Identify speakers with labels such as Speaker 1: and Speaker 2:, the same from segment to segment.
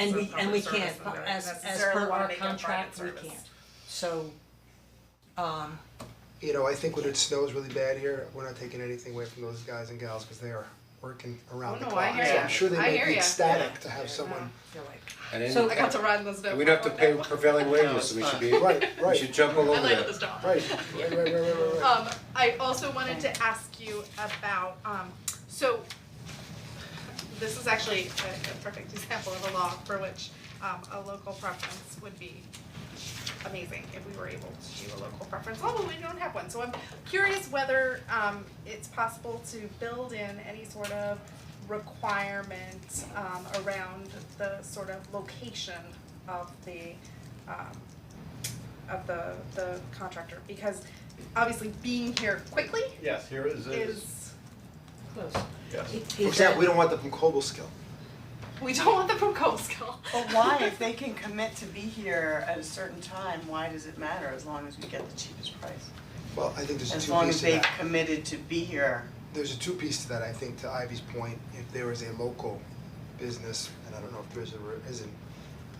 Speaker 1: And
Speaker 2: Sort
Speaker 1: we,
Speaker 2: of
Speaker 1: and
Speaker 2: public
Speaker 1: we
Speaker 2: service
Speaker 1: can't,
Speaker 2: and don't
Speaker 1: as, as
Speaker 2: necessarily
Speaker 1: per
Speaker 2: wanna
Speaker 1: our
Speaker 2: make it a
Speaker 1: contract, we
Speaker 2: private
Speaker 1: can't,
Speaker 2: service.
Speaker 1: so, um,
Speaker 3: you know, I think when it snows really bad here, we're not taking anything away from those guys and gals, cause they are working
Speaker 4: Oh,
Speaker 3: around the
Speaker 4: no, I
Speaker 3: clock, so
Speaker 4: hear
Speaker 2: ya.
Speaker 3: I'm sure they
Speaker 4: I
Speaker 3: may
Speaker 4: hear
Speaker 3: be
Speaker 4: ya.
Speaker 3: ecstatic to have
Speaker 4: Yeah.
Speaker 3: someone,
Speaker 1: you're like,
Speaker 5: And then-
Speaker 1: So-
Speaker 4: I got to run this bit.
Speaker 5: We don't have to pay
Speaker 4: one day.
Speaker 5: prevailing
Speaker 6: No,
Speaker 5: wages, so we
Speaker 6: it's
Speaker 5: should be,
Speaker 3: right,
Speaker 5: we
Speaker 3: right,
Speaker 5: should jump all
Speaker 4: I
Speaker 5: over
Speaker 4: laid out
Speaker 5: that.
Speaker 4: this dog.
Speaker 3: right, right, right, right, right, right.
Speaker 4: Um, I also wanted to ask you about, um, so this is actually a, a perfect example of a law for which, um, a local preference would be amazing if we were able to do a local preference law, but we don't have one. So I'm curious whether, um, it's possible to build in any sort of requirement, um, around the sort of location of the, um, of the, the contractor, because obviously being here quickly
Speaker 6: Yes, here is, is,
Speaker 4: is,
Speaker 1: close.
Speaker 6: yes.
Speaker 3: For example, we don't want them from Cobleskill,
Speaker 4: we don't want the from Coastal.
Speaker 7: But why, if they can commit to be here at a certain time, why does it matter as long as we get the cheapest price?
Speaker 3: well, I think there's a two piece to that.
Speaker 7: As long as they've committed to be here.
Speaker 3: there's a two piece to that, I think, to Ivy's point, if there is a local business, and I don't know if there's a, re- isn't,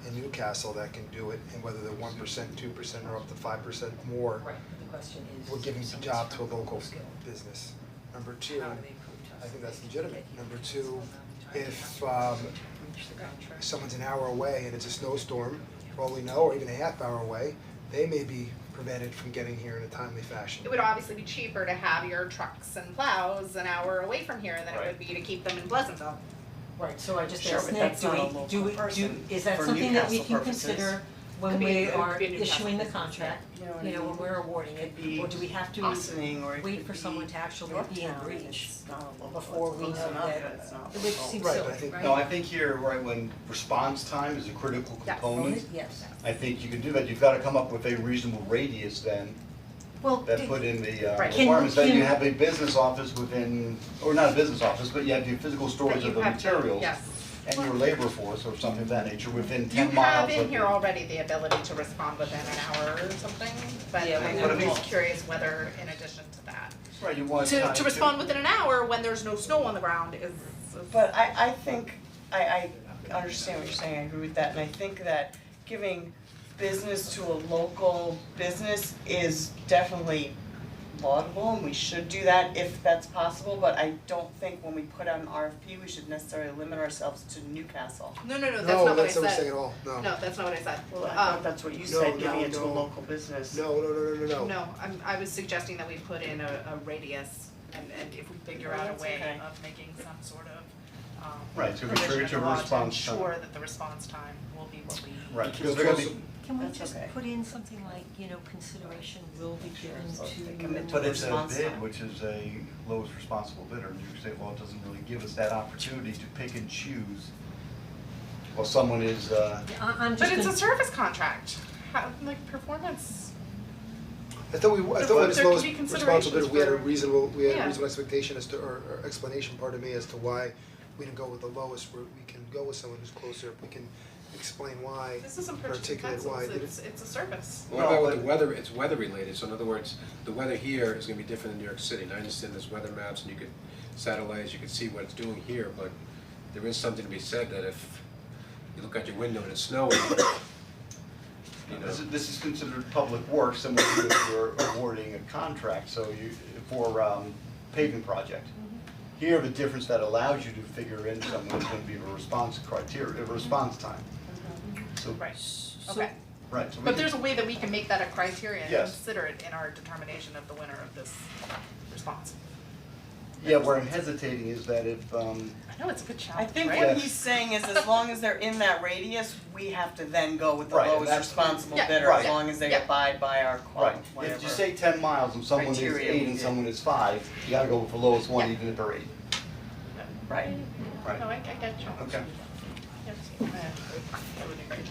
Speaker 3: in Newcastle that can do it, and whether they're one percent, two percent, or up to five percent more,
Speaker 1: Right, the question is.
Speaker 3: we're giving
Speaker 1: if
Speaker 3: the
Speaker 1: someone's
Speaker 3: job to a
Speaker 1: from
Speaker 3: local
Speaker 1: Costco,
Speaker 3: business. Number two,
Speaker 1: how do they prove to us
Speaker 3: I think
Speaker 1: that
Speaker 3: that's
Speaker 1: they can get
Speaker 3: legitimate.
Speaker 1: here?
Speaker 3: Number
Speaker 1: That's
Speaker 3: two,
Speaker 1: what I'm trying to
Speaker 3: if,
Speaker 1: figure out.
Speaker 3: um,
Speaker 1: Reach the contract.
Speaker 3: someone's an hour away and it's a snowstorm, for all we know, or even a half hour away, they may be prevented from getting here in a timely fashion.
Speaker 4: It would obviously be cheaper to have your trucks and plows an hour away from here than it would be to keep them in Pleasantville.
Speaker 1: Right, so I just
Speaker 7: Sure,
Speaker 1: asked
Speaker 7: but
Speaker 1: Nick,
Speaker 7: that's
Speaker 1: do
Speaker 7: not
Speaker 1: we,
Speaker 7: a local
Speaker 1: do we, do,
Speaker 7: person
Speaker 1: is that
Speaker 7: for
Speaker 1: something that we
Speaker 7: Newcastle
Speaker 1: can
Speaker 7: purposes.
Speaker 1: consider when
Speaker 4: Could be
Speaker 1: we
Speaker 4: a- could
Speaker 1: are
Speaker 4: be a Newcastle
Speaker 1: issuing the
Speaker 4: business,
Speaker 1: contract,
Speaker 7: You know what
Speaker 1: you
Speaker 7: I
Speaker 1: know, when
Speaker 7: mean?
Speaker 1: we're awarding it,
Speaker 7: Could be
Speaker 1: or do we have to
Speaker 7: Austining or it
Speaker 1: wait
Speaker 7: could
Speaker 1: for someone
Speaker 7: be
Speaker 1: to actually be in
Speaker 7: Yorktown,
Speaker 1: reach
Speaker 7: it's not a local,
Speaker 1: before
Speaker 7: it's
Speaker 1: we
Speaker 7: close
Speaker 1: know
Speaker 7: enough,
Speaker 1: that-
Speaker 7: but it's not
Speaker 1: which
Speaker 7: local.
Speaker 1: seems
Speaker 3: Right,
Speaker 1: silly,
Speaker 3: but I think-
Speaker 1: right?
Speaker 5: No, Oh, I think here, right, when response time is a critical
Speaker 4: Yes.
Speaker 5: component,
Speaker 1: Yes.
Speaker 5: I think you can do that, you've gotta come up with a reasonable radius then,
Speaker 1: Well,
Speaker 5: that
Speaker 1: did-
Speaker 5: put in the uh,
Speaker 4: Right.
Speaker 1: Can-
Speaker 5: requirements, that you
Speaker 1: can-
Speaker 5: have a business office within, or not a business office, but you have your physical storage
Speaker 4: That you
Speaker 5: of the
Speaker 4: have to-
Speaker 5: materials
Speaker 4: yes.
Speaker 5: and your labor force or something of that nature within
Speaker 4: You
Speaker 5: ten miles
Speaker 4: have
Speaker 5: of
Speaker 4: in
Speaker 5: the-
Speaker 4: here already the ability to respond within an hour or something, but
Speaker 1: Yeah,
Speaker 4: I'm
Speaker 5: but I mean-
Speaker 4: just curious whether in addition to that.
Speaker 5: Right, you want time
Speaker 4: To to respond within an hour when there's no snow on the ground is is-
Speaker 7: But I I think, I I understand what you're saying, I agree with that, and I think that giving business to a local business is definitely laudable and we should do that if that's possible, but I don't think when we put out an RFP, we should necessarily limit ourselves to Newcastle.
Speaker 4: No, no, no, that's not what I
Speaker 3: No, that's not what I'm saying
Speaker 4: said.
Speaker 3: at all, no.
Speaker 4: No, that's not what I said.
Speaker 7: Well, I
Speaker 4: Um,
Speaker 7: thought that's what you said,
Speaker 3: no,
Speaker 7: giving it to a
Speaker 3: no.
Speaker 7: local business.
Speaker 3: No, no, no, no, no, no.
Speaker 4: No, I'm, I was suggesting that we put in a, a radius and, and if we figure
Speaker 7: Oh,
Speaker 4: out a
Speaker 7: that's
Speaker 4: way
Speaker 7: okay.
Speaker 4: of making some sort of, um,
Speaker 5: Right, to refer
Speaker 4: provision
Speaker 5: to
Speaker 4: in the law
Speaker 5: response time.
Speaker 4: ensure that the response time will be what we.
Speaker 5: Right, because they're gonna be,
Speaker 1: Can we
Speaker 7: That's
Speaker 1: just
Speaker 7: okay.
Speaker 1: put in something like, you know, consideration will be
Speaker 7: Sure,
Speaker 1: given
Speaker 7: so they
Speaker 1: to.
Speaker 7: commit to
Speaker 5: But it's a
Speaker 7: Response
Speaker 5: bid,
Speaker 7: time.
Speaker 5: which is a lowest responsible bidder, New York State law doesn't really give us that opportunity to pick and choose. Well, someone is, uh,
Speaker 1: I, am
Speaker 4: But
Speaker 1: just
Speaker 4: it's a
Speaker 1: gonna,
Speaker 4: service contract, how, like performance,
Speaker 3: I thought we, I
Speaker 4: There-
Speaker 3: thought when it's
Speaker 4: there could
Speaker 3: lowest
Speaker 4: be
Speaker 3: responsibility, we had a
Speaker 4: considerations for-
Speaker 3: reasonable, we had a
Speaker 4: Yeah.
Speaker 3: reasonable expectation as to, or, or explanation, pardon me, as to why we didn't go with the lowest, where we can go with someone who's closer, if we can explain why.
Speaker 4: this isn't purchasing
Speaker 3: Articulate why,
Speaker 4: pencils,
Speaker 3: did it-
Speaker 4: it's, it's a service.
Speaker 8: What about with the weather, it's weather related, so in other words, the weather here is gonna be different than New York City, and I understand there's weather maps and you could satellites, you could see what it's doing here, but there is something to be said that if you look out your window and it's snowing, you know,
Speaker 5: this is, this is considered public work, similar to if you're awarding a contract, so you, for, um, paving project. Here, the difference that allows you to figure in someone's gonna be a response criteria, a response time. So,
Speaker 4: Right,
Speaker 1: so-
Speaker 4: okay,
Speaker 5: right, so we
Speaker 4: but
Speaker 5: can-
Speaker 4: there's a way that we can make that a criteria and
Speaker 5: Yes.
Speaker 4: consider it in our determination of the winner of this response.
Speaker 5: yeah, where I'm hesitating is that if, um,
Speaker 4: I know it's a good
Speaker 7: I
Speaker 4: challenge,
Speaker 7: think
Speaker 4: right?
Speaker 7: what
Speaker 5: Yeah.
Speaker 7: he's saying is as long as they're in that radius, we have to then go with the
Speaker 5: Right, and
Speaker 7: lowest
Speaker 5: that's-
Speaker 7: responsible
Speaker 4: Yeah,
Speaker 7: bidder, as
Speaker 5: right,
Speaker 7: long as they
Speaker 4: yeah.
Speaker 7: abide by our quote,
Speaker 5: Right,
Speaker 7: whatever.
Speaker 5: if you say ten miles and someone is
Speaker 7: Criteria
Speaker 5: eight
Speaker 7: we
Speaker 5: and
Speaker 7: did.
Speaker 5: someone is five, you gotta go with the lowest one
Speaker 4: Yeah.
Speaker 5: even if they're eight.
Speaker 7: Right.
Speaker 4: No, I, I get you.
Speaker 5: Okay.
Speaker 4: Yes, uh, I would agree.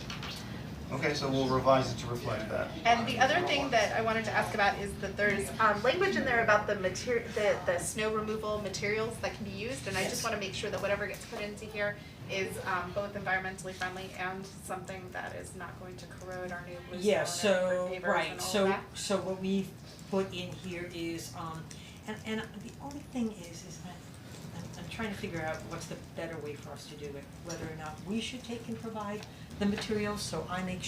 Speaker 5: Okay, so we'll revise it to reflect that.
Speaker 4: And the other thing that I wanted to ask about is that there's um language in there about the material, the the snow removal materials that can be used, and I just wanna make sure that whatever gets put into here is um both environmentally friendly and something that is not going to corrode our new blue
Speaker 1: yeah,
Speaker 4: stone and our
Speaker 1: so,
Speaker 4: neighbors
Speaker 1: right,
Speaker 4: and all of
Speaker 1: so,
Speaker 4: that.
Speaker 1: so what we put in here is, um, and, and the only thing is, is that, I'm, I'm trying to figure out what's the better way for us to do it, whether or not we should take and provide the materials, so I make sure